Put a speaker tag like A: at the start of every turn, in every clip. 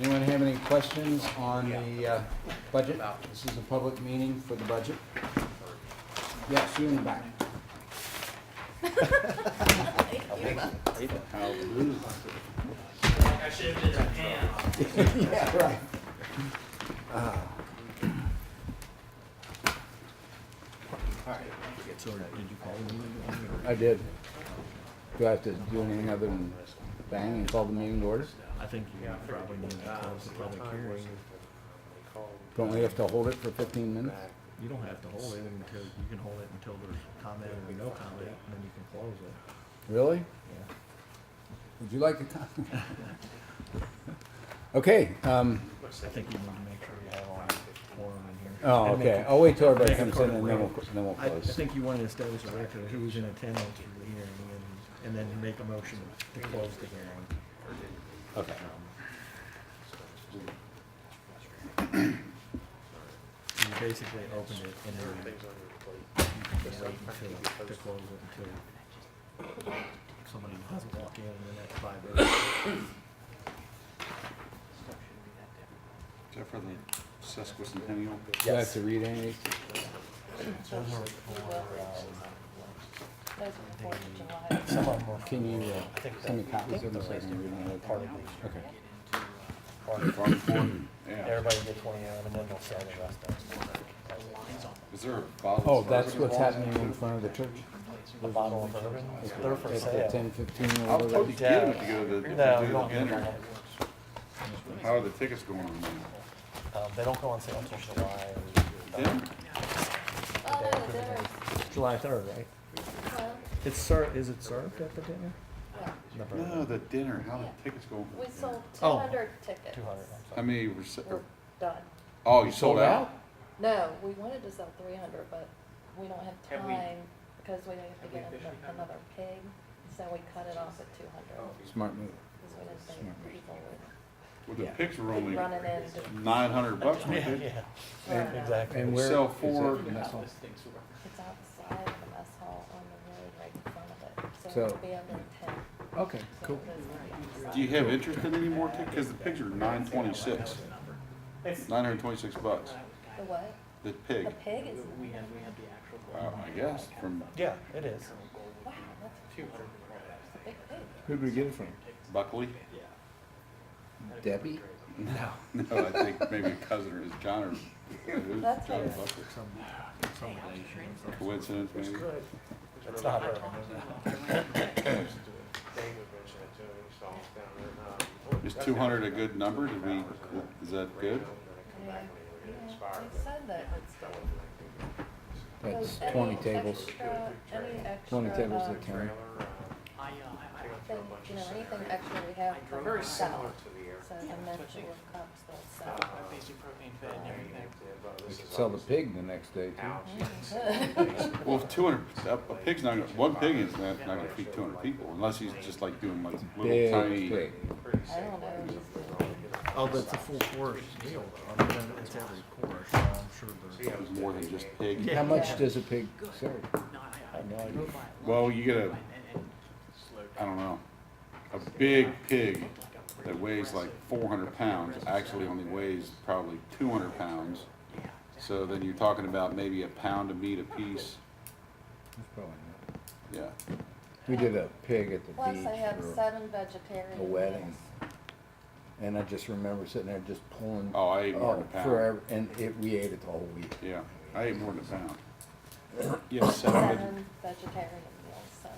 A: Anyone have any questions on the uh, budget? This is a public meeting for the budget. Yes, you in the back.
B: I should have been a hand.
A: Yeah, right. I did. Do I have to do anything other than bang and call the meeting to order?
C: I think you uh, probably need to close the public hearing.
A: Don't we have to hold it for fifteen minutes?
C: You don't have to hold it until, you can hold it until there's comment or no comment, and then you can close it.
A: Really?
C: Yeah.
A: Would you like to? co- Okay, um,
C: I think you need to make sure you have all your quorum in here.
A: oh,
C: And make
A: okay,
C: it-
A: I'll wait till everybody
C: make it
A: comes
C: part
A: in
C: of
A: and then we'll,
C: record.
A: then we'll
C: I, I
A: close.
C: think you want to establish a record of who's in attendance for the hearing, and, and then make a motion to close the hearing.
A: Okay.
C: You basically open it and then you can wait until, to close it until somebody doesn't walk in in the next five minutes.
D: Except for the sesquicentennial.
A: Do I have to read any of these?
E: uh,
F: Those are the Fourth of July.
A: Can you, uh, send me copies of them so I can read them? Okay.
D: Yeah.
E: Everybody get twenty of them, and then they'll sell the rest of them.
D: Is there a bottle?
A: Oh,
D: of
A: that's
D: bourbon
A: what's
D: involved?
A: happening in front of the church?
E: A bottle of bourbon, they're for
A: At the
E: sale.
A: ten fifteen
C: Oh,
D: I'll
A: or
D: tell you,
A: whatever?
D: get them if you go to the,
E: No, you
D: if you do the
E: don't get
D: dinner.
E: that.
D: How are the tickets going on now?
E: Um, they don't go on sale until July.
D: Dinner?
F: Oh, no, the dinner's,
C: July third, right?
F: well,
C: It's served, is it served at the dinner?
F: yeah.
D: No, the dinner, how are the tickets going?
F: we sold two
C: Oh.
F: hundred tickets.
E: Two hundred,
D: How many were, se-
F: We're done.
D: oh, you sold out?
F: No, we wanted to sell three hundred, but we don't have
B: Have we-
F: time because we have to
B: Have we
F: get
B: officially done
F: an- another pig, so we cut it off at two hundred.
A: Smart move.
F: Because we didn't
B: Oh,
F: think people
D: Well, the picks were
F: would
D: only
F: be running in to.
D: nine hundred bucks,
E: I'm
D: weren't
E: sorry.
D: they?
E: Yeah,
F: run out.
E: exactly.
A: And
D: You
A: where?
D: Sell
A: is it?
D: four.
F: It's outside of the mess hall on the road right in front of it,
A: So-
F: so it'll be under ten.
A: Okay, cool.
D: Do you have interest in any more tickets? Cause the pigs are nine twenty-six,
B: It's,
D: nine hundred twenty-six bucks,
F: The what?
D: the
F: The
D: pig.
F: pig is,
B: we had, we had the actual.
D: Wow, I guess, from
E: Yeah, it is.
F: wow, that's
B: Two hundred.
F: a big pig.
A: Who'd we get it from?
D: Buckley?
A: Debbie?
D: No. No, I think maybe a cousin or his John or, it was
F: That's
D: John
F: hilarious.
D: Buckley.
C: Some, some relation.
D: Coincidence, maybe?
E: It's not bourbon.
D: Is two hundred a good number? Did we, is that good?
F: Yeah, yeah, they said that.
A: That's
F: Those- any
A: twenty tables.
F: extra- any
A: Twenty
F: extra,
A: tables
F: uh,
A: at ten.
B: I, uh, I, I don't
F: thing, you know, anything extra we have
B: They're
F: from
B: very
F: the
B: similar
F: south,
B: to the air.
F: so the mention of cups, they'll
B: Uh,
F: sell.
B: basic propane fed and everything.
A: We could sell the pig the next day too.
D: Well, if two hundred, a pig's not, gonna one pig is not, not gonna feed two hundred people unless he's just like doing like
A: Big
D: little tiny.
A: pig.
F: I don't know if he's doing,
C: Oh, but it's a full course meal, I mean, it's every course, so I'm sure there's.
D: It was more than just pig.
A: How
C: Yeah.
A: much does a pig serve?
E: I know, I do.
D: Well, you get a, I don't know, a big pig that weighs like four hundred pounds, actually only weighs probably two hundred pounds. So then you're talking about maybe a pound of meat apiece.
A: That's probably not.
D: Yeah,
A: We did a pig at the
F: plus I have
A: beach for,
F: seven vegetarian
A: a
F: meals.
A: wedding. and I just remember sitting there just pulling.
D: oh, I ate more than a
A: oh,
D: pound.
A: Forever, and it, we ate it the whole week.
D: Yeah, I ate more than a pound. Yeah, seven veggie-
F: Seven vegetarian meals, so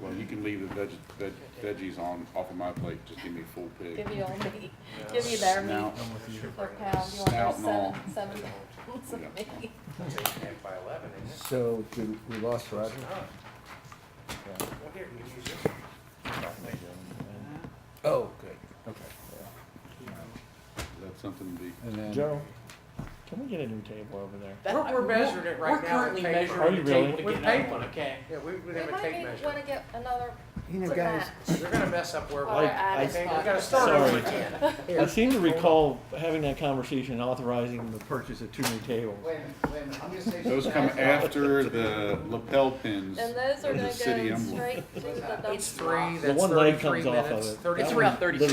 D: Well, you can leave the veg, veg, veggies on, off of my plate, just give me a full pig.
F: give you all meat, give you their meat
D: Snout.
C: I'm with you.
F: per pound, you want their
D: Snout and all.
F: seven, seven pounds of
D: Yeah.
F: meat.
A: So, did, we lost Roger? Oh, good, okay.
D: That's something to be,
A: And then.
C: Joe, can we get a new table over there?
B: We're, we're measuring it right now. We're currently
C: Are you
B: measuring the
C: really?
B: table to
G: With
B: get it up
G: paper.
B: on a can.
G: Yeah, we would
F: We
G: have a
F: might
G: tape
F: need,
G: measure.
F: wanna get another
A: You know,
F: to
A: guys,
F: match.
G: You're gonna mess up where,
F: Or
G: we're
C: Like,
F: add a
C: I-
G: Okay,
F: spot.
G: we're gonna start
C: Sorry.
G: over again.
C: I seem to recall having that conversation authorizing the purchase of two new tables.
G: Wait a minute, wait a minute, I'm gonna say.
D: those come after the lapel pins.
F: And those are
D: There's a
F: gonna
D: city
F: go
D: emblem.
F: straight to the dumpster.
G: It's three,
C: The
G: that's
C: one leg
G: thirty-three
C: comes off of
G: minutes,
C: it.
G: thirty-three.
B: It's around thirty-six